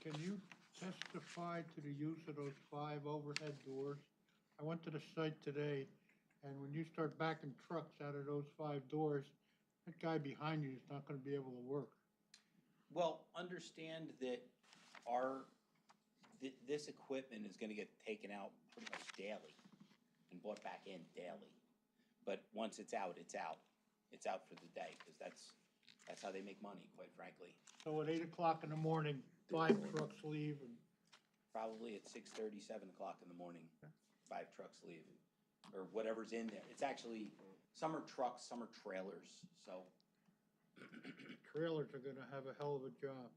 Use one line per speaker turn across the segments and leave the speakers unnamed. can you testify to the use of those five overhead doors? I went to the site today, and when you start backing trucks out of those five doors, that guy behind you is not gonna be able to work.
Well, understand that our, thi- this equipment is gonna get taken out pretty much daily and brought back in daily. But once it's out, it's out. It's out for the day, because that's, that's how they make money, quite frankly.
So at eight o'clock in the morning, five trucks leave, and
Probably at six thirty, seven o'clock in the morning, five trucks leave, or whatever's in there. It's actually, some are trucks, some are trailers, so
trailers are gonna have a hell of a job.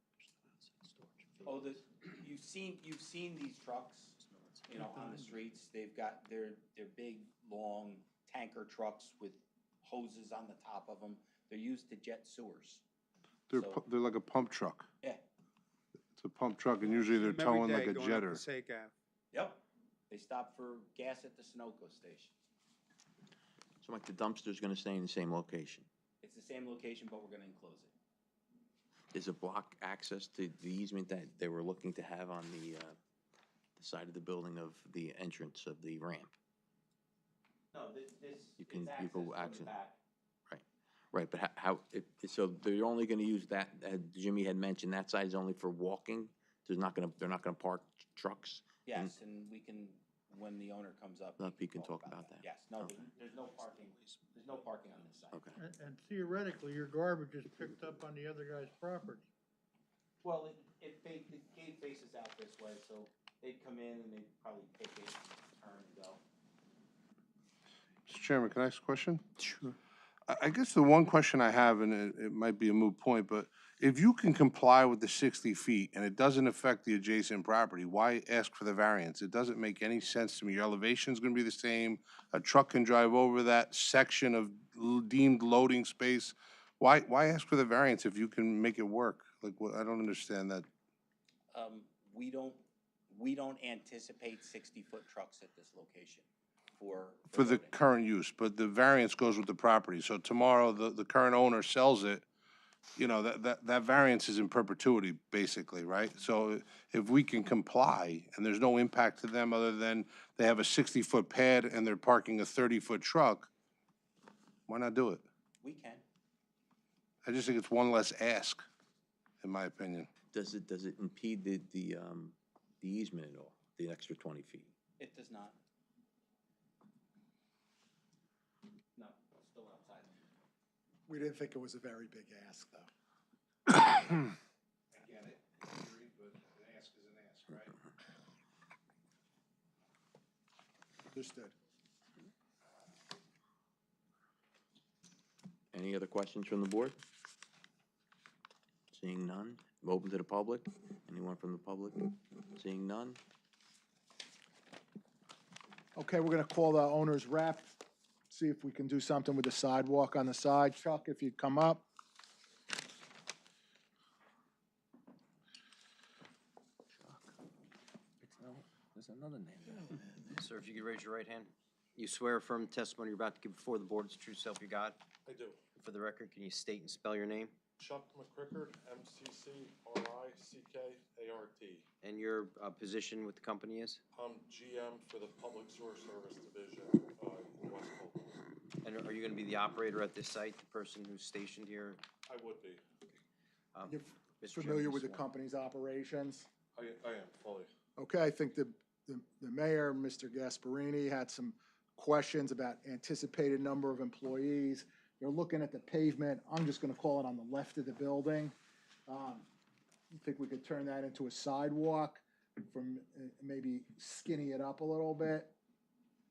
Oh, the, you've seen, you've seen these trucks, you know, on the streets, they've got their, their big, long tanker trucks with hoses on the top of them, they're used to jet sewers.
They're,
So-
pu- they're like a pump truck.
Yeah,
It's a pump truck, and usually they're towing like a jetter.
yep, they stop for gas at the Sunoco station.
So like the dumpster's gonna stay in the same location?
It's the same location, but we're gonna enclose it.
Is a block access to the easement that they were looking to have on the, uh, the side of the building of the entrance of the ramp?
No, this, this,
You can-
it's
you
access
go
from the
access-
back.
Right, right, but ho- how, it, so they're only gonna use that, uh, Jimmy had mentioned, that side's only for walking? There's not gonna, they're not gonna park trucks?
Yes, and we can, when the owner comes up. we
Up, you can talk about that.
Yes, no, there- there's no parking, there's no parking on this side.
Okay.
And- And theoretically, your garbage is picked up on the other guy's property.
Well, it, it, fa- the gate faces out this way, so they'd come in and they'd probably take it, turn and go.
Mr. Chairman, can I ask a question? Sure. I, I guess the one question I have, and it, it might be a moot point, but if you can comply with the sixty feet and it doesn't affect the adjacent property, why ask for the variance? It doesn't make any sense to me. Your elevation's gonna be the same. A truck can drive over that section of l- deemed loading space. Why, why ask for the variance if you can make it work? Like, what, I don't understand that.
Um, we don't, we don't anticipate sixty-foot trucks at this location for.
For the
loading.
current use, but the variance goes with the property. So tomorrow, the, the current owner sells it, you know, that, that, that variance is in perpetuity, basically, right? So if we can comply, and there's no impact to them other than they have a sixty-foot pad and they're parking a thirty-foot truck, why not do it?
We can.
I just think it's one less ask, in my opinion.
Does it, does it impede the, the, um, the easement at all, the extra twenty feet?
It does not. No, it's still outside.
We didn't think it was a very big ask, though.
I get it, I agree, but an ask is an ask, right?
Understood.
Any other questions from the board? Seeing none, open to the public? Anyone from the public? Seeing none?
Okay, we're gonna call the owner's rep, see if we can do something with the sidewalk on the side. Chuck, if you'd come up.
There's another name.
Sir, if you could raise your right hand. You swear affirm the testimony you're about to give before the board is the true self you got?
I do.
For the record, can you state and spell your name?
Chuck McCrickard, M-C-C-R-I-C-K-A-R-T.
And your uh, position with the company is?
I'm GM for the Public Sewer Service Division, uh, in West Colton.
And are you going to be the operator at this site, the person who's stationed here?
I would be.
Um,
You're
Mr. Chairman,
familiar
you
with the
sworn.
company's operations?
I, I am fully.
Okay, I think the, the the mayor, Mr. Gasparini, had some questions about anticipated number of employees. They're looking at the pavement, I'm just gonna call it on the left of the building. Um, I Think we could turn that into a sidewalk from, uh, maybe skinny it up a little bit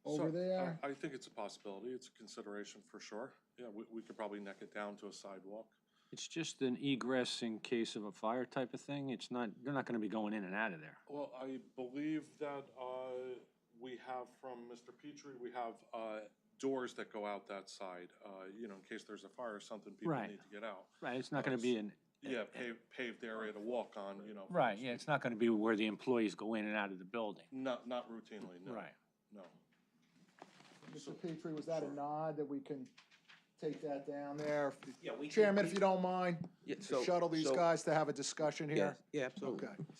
over
So,
there?
I I think it's a possibility. It's a consideration for sure. Yeah, we, we could probably neck it down to a sidewalk.
It's just an egress in case of a fire type of thing. It's not, they're not gonna be going in and out of there.
Well, I believe that, uh, we have from Mr. Petrie, we have, uh, doors that go out that side, uh, you know, in case there's a fire or something, people
Right.
need to get out.
Right, it's not gonna be an,
Yeah, paved, paved area to walk on, you know. for
right, yeah, it's not gonna be where the employees go in and out of the building.
Not, not routinely, no.
Right.
No.
Mr. Petrie, was that a nod that we can take that down there?
Yeah, we can-
Chairman, if you don't mind,
Yeah,
shuttle these guys to have a discussion here?
Yeah, absolutely.
Okay.